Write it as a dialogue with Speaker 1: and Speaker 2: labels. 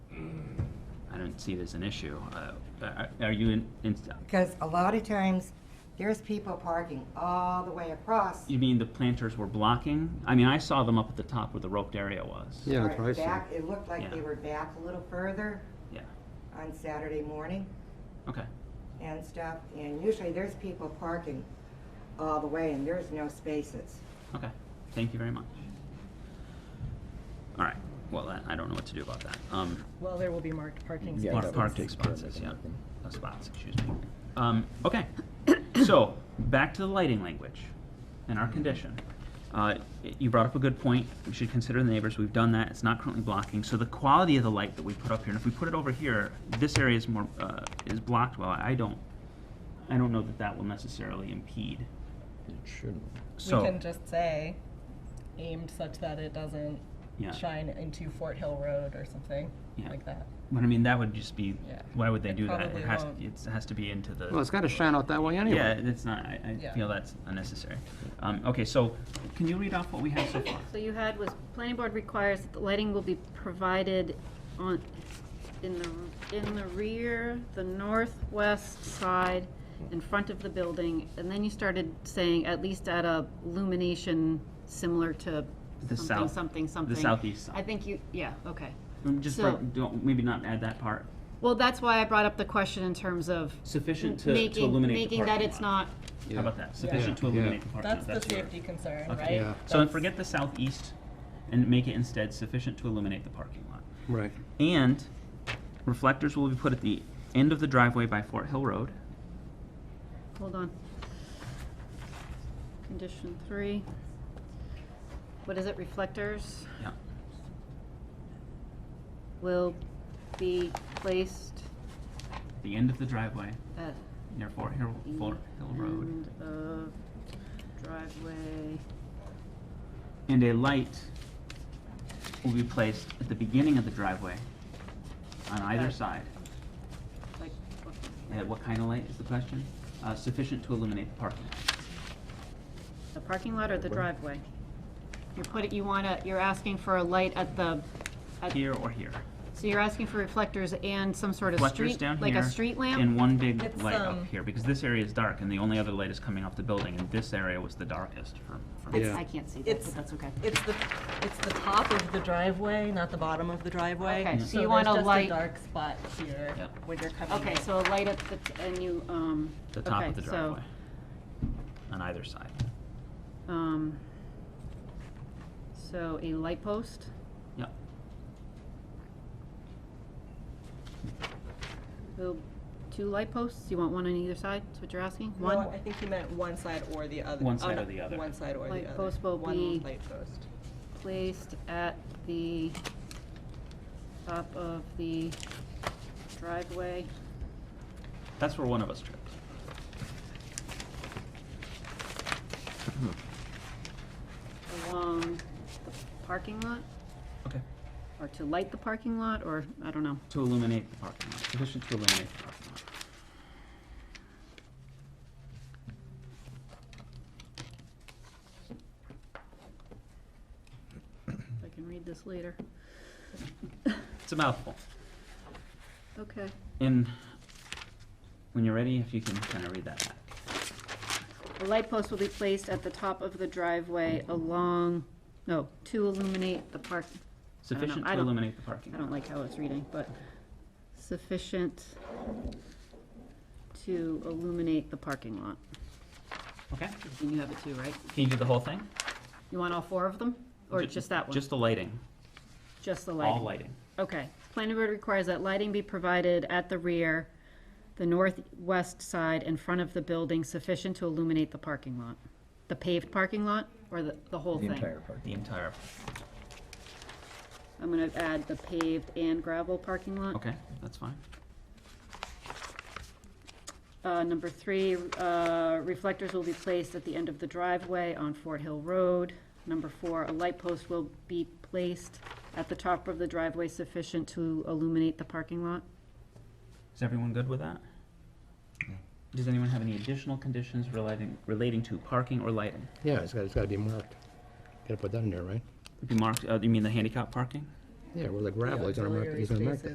Speaker 1: don't see it as an issue. Uh, are- Are you in, in-
Speaker 2: Because a lot of times, there's people parking all the way across.
Speaker 1: you mean the planters were blocking? I mean, I saw them up at the top where the roped area was.
Speaker 3: Yeah,
Speaker 2: Right
Speaker 3: that's what I saw.
Speaker 2: Back, it looked like they
Speaker 1: Yeah.
Speaker 2: were back a little further
Speaker 1: Yeah,
Speaker 2: on Saturday morning
Speaker 1: okay.
Speaker 2: and stuff. And usually there's people parking all the way and there's no spaces.
Speaker 1: Okay, thank you very much. All right, well, I- I don't know what to do about that. Um,
Speaker 4: Well, there will be marked parking
Speaker 5: Yeah,
Speaker 4: spots.
Speaker 1: Mark
Speaker 5: that
Speaker 1: parking
Speaker 5: takes care of
Speaker 1: spots,
Speaker 5: it.
Speaker 1: yeah, Uh, spots, excuse me. Um, okay, so, back to the lighting language and our condition. Uh, y- you brought up a good point, we should consider the neighbors, we've done that, it's not currently blocking, so the quality of the light that we put up here, and if we put it over here, this area is more, uh, is blocked well, I don't, I don't know that that will necessarily impede,
Speaker 5: It shouldn't.
Speaker 4: We
Speaker 1: so.
Speaker 4: can just say aimed such that it doesn't
Speaker 1: Yeah.
Speaker 4: shine into Fort Hill Road or something
Speaker 1: Yeah.
Speaker 4: like that.
Speaker 1: But I mean, that would just be,
Speaker 4: Yeah.
Speaker 1: why would they
Speaker 4: It
Speaker 1: do that?
Speaker 4: probably
Speaker 1: It has,
Speaker 4: won't.
Speaker 1: it has to be into the.
Speaker 3: Well, it's gotta shine out that way anyway.
Speaker 1: Yeah, it's not, I, I
Speaker 4: Yeah.
Speaker 1: feel that's unnecessary. Um, okay, so, can you read off what we have so far?
Speaker 6: So you had was, planning board requires that the lighting will be provided on, in the, in the rear, the northwest side, in front of the building, and then you started saying at least at a lumination similar to
Speaker 1: The
Speaker 6: something,
Speaker 1: south-
Speaker 6: something,
Speaker 1: the
Speaker 6: something.
Speaker 1: southeast side.
Speaker 6: I think you, yeah, okay.
Speaker 1: Um, Just,
Speaker 6: So-
Speaker 1: break- don't, maybe not add that part.
Speaker 6: Well, that's why I brought up the question in terms of
Speaker 1: Sufficient to, to
Speaker 6: making,
Speaker 1: illuminate the
Speaker 6: making that
Speaker 1: parking
Speaker 6: it's
Speaker 1: lot.
Speaker 6: not,
Speaker 3: Yeah.
Speaker 1: How about that? Sufficient to
Speaker 3: Yeah.
Speaker 1: illuminate the parking
Speaker 4: That's
Speaker 1: lot.
Speaker 4: the
Speaker 1: your-
Speaker 4: safety concern,
Speaker 1: Okay.
Speaker 4: right?
Speaker 3: Yeah.
Speaker 1: So, and
Speaker 4: That's-
Speaker 1: forget the southeast, and make it instead sufficient to illuminate the parking lot.
Speaker 3: Right.
Speaker 1: And reflectors will be put at the end of the driveway by Fort Hill Road.
Speaker 6: Hold on. Condition three. What is it, reflectors
Speaker 1: Yeah.
Speaker 6: will be placed
Speaker 1: The end of the driveway
Speaker 6: at
Speaker 1: near Fort Hill,
Speaker 6: the
Speaker 1: Fort Hill Road.
Speaker 6: end of driveway.
Speaker 1: And a light will be placed at the beginning of the driveway on either
Speaker 6: Right.
Speaker 1: side.
Speaker 6: Like, what-
Speaker 1: And what kind of light is the question? Uh, sufficient to illuminate the parking.
Speaker 6: The parking lot or the driveway? You're putting, you wanna, you're asking for a light at the, at,
Speaker 1: Here or here?
Speaker 6: so you're asking for reflectors and some sort of
Speaker 1: Reflectors
Speaker 6: street,
Speaker 1: down
Speaker 6: like a
Speaker 1: here
Speaker 6: street lamp?
Speaker 1: And one big
Speaker 4: It's,
Speaker 1: light up
Speaker 4: um,
Speaker 1: here, because this area is dark and the only other light is coming off the building, and this area was the darkest for, for me.
Speaker 3: Yeah.
Speaker 6: I can't see that,
Speaker 4: It's-
Speaker 6: but that's okay.
Speaker 4: It's the, it's the top of the driveway, not the bottom of the driveway.
Speaker 6: Okay, so you
Speaker 4: there's
Speaker 6: want a
Speaker 4: just
Speaker 6: light-
Speaker 4: dark spot here
Speaker 1: Yeah.
Speaker 4: when you're coming in.
Speaker 6: Okay, so a light at the, t- and you, um.
Speaker 1: The top
Speaker 6: okay,
Speaker 1: of the
Speaker 6: so,
Speaker 1: driveway. On either side.
Speaker 6: Um, so a light post,
Speaker 1: Yep.
Speaker 6: will, two light posts, you want one on either side, is what you're asking?
Speaker 4: No,
Speaker 6: One?
Speaker 4: I think he meant one side or the other.
Speaker 1: One
Speaker 4: Oh,
Speaker 1: side
Speaker 4: no,
Speaker 1: or the other.
Speaker 4: One side or the other.
Speaker 6: Light post will be-
Speaker 4: One light post.
Speaker 6: Placed at the top of the driveway.
Speaker 1: That's where one of us tripped.
Speaker 6: along the parking lot,
Speaker 1: Okay.
Speaker 6: or to light the parking lot, or, I don't know.
Speaker 1: To illuminate the parking lot, sufficient to illuminate the parking lot.
Speaker 6: I can read this later.
Speaker 1: It's a mouthful.
Speaker 6: Okay.
Speaker 1: And when you're ready, if you can kind of read that back.
Speaker 6: A light post will be placed at the top of the driveway along, no, to illuminate the park. I don't know,
Speaker 1: Sufficient
Speaker 6: I
Speaker 1: to
Speaker 6: don't-
Speaker 1: illuminate the parking
Speaker 6: I
Speaker 1: lot.
Speaker 6: don't like how it's reading, but sufficient to illuminate the parking lot.
Speaker 1: Okay,
Speaker 6: And you have it too, right?
Speaker 1: can you do the whole thing?
Speaker 6: You want all four of them, or
Speaker 1: Ju-
Speaker 6: just that one?
Speaker 1: Just the lighting,
Speaker 6: Just the lighting?
Speaker 1: all lighting.
Speaker 6: Okay. Planning board requires that lighting be provided at the rear, the northwest side in front of the building sufficient to illuminate the parking lot. The paved parking lot or the, the whole
Speaker 5: The
Speaker 6: thing?
Speaker 5: entire parking.
Speaker 1: The entire,
Speaker 6: I'm gonna add the paved and gravel parking lot.
Speaker 1: okay, that's fine.
Speaker 6: Uh, number three, uh, reflectors will be placed at the end of the driveway on Fort Hill Road. Number four, a light post will be placed at the top of the driveway sufficient to illuminate the parking lot.
Speaker 1: Is everyone good with that? Does anyone have any additional conditions relating, relating to parking or lighting?
Speaker 3: Yeah, it's gotta, it's gotta be marked. Gotta put that in there, right?
Speaker 1: Be marked, uh, you mean the handicap parking?
Speaker 3: Yeah, where the gravel, he's gonna mark,
Speaker 4: Auxiliary
Speaker 3: he's gonna mark that.
Speaker 4: spaces.